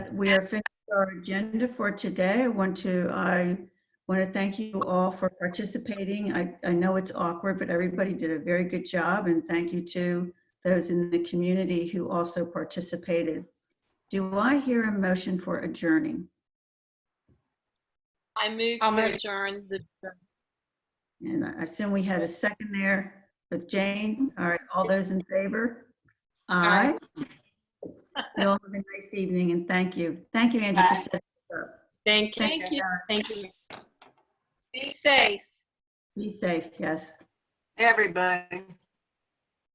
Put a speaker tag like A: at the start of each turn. A: We are finished with our agenda for today. I want to, I want to thank you all for participating. I, I know it's awkward, but everybody did a very good job, and thank you to those in the community who also participated. Do I hear a motion for adjourning?
B: I move
C: I'll
B: to
C: move.
B: adjourn the,
A: And I assume we had a second there with Jane. All right, all those in favor? Aye.
C: Aye.
A: You all have a nice evening, and thank you. Thank you, Angie, for setting this up.
C: Thank you.
B: thank you,
C: Thank you.
B: be safe.
A: Be safe, yes.
D: Everybody.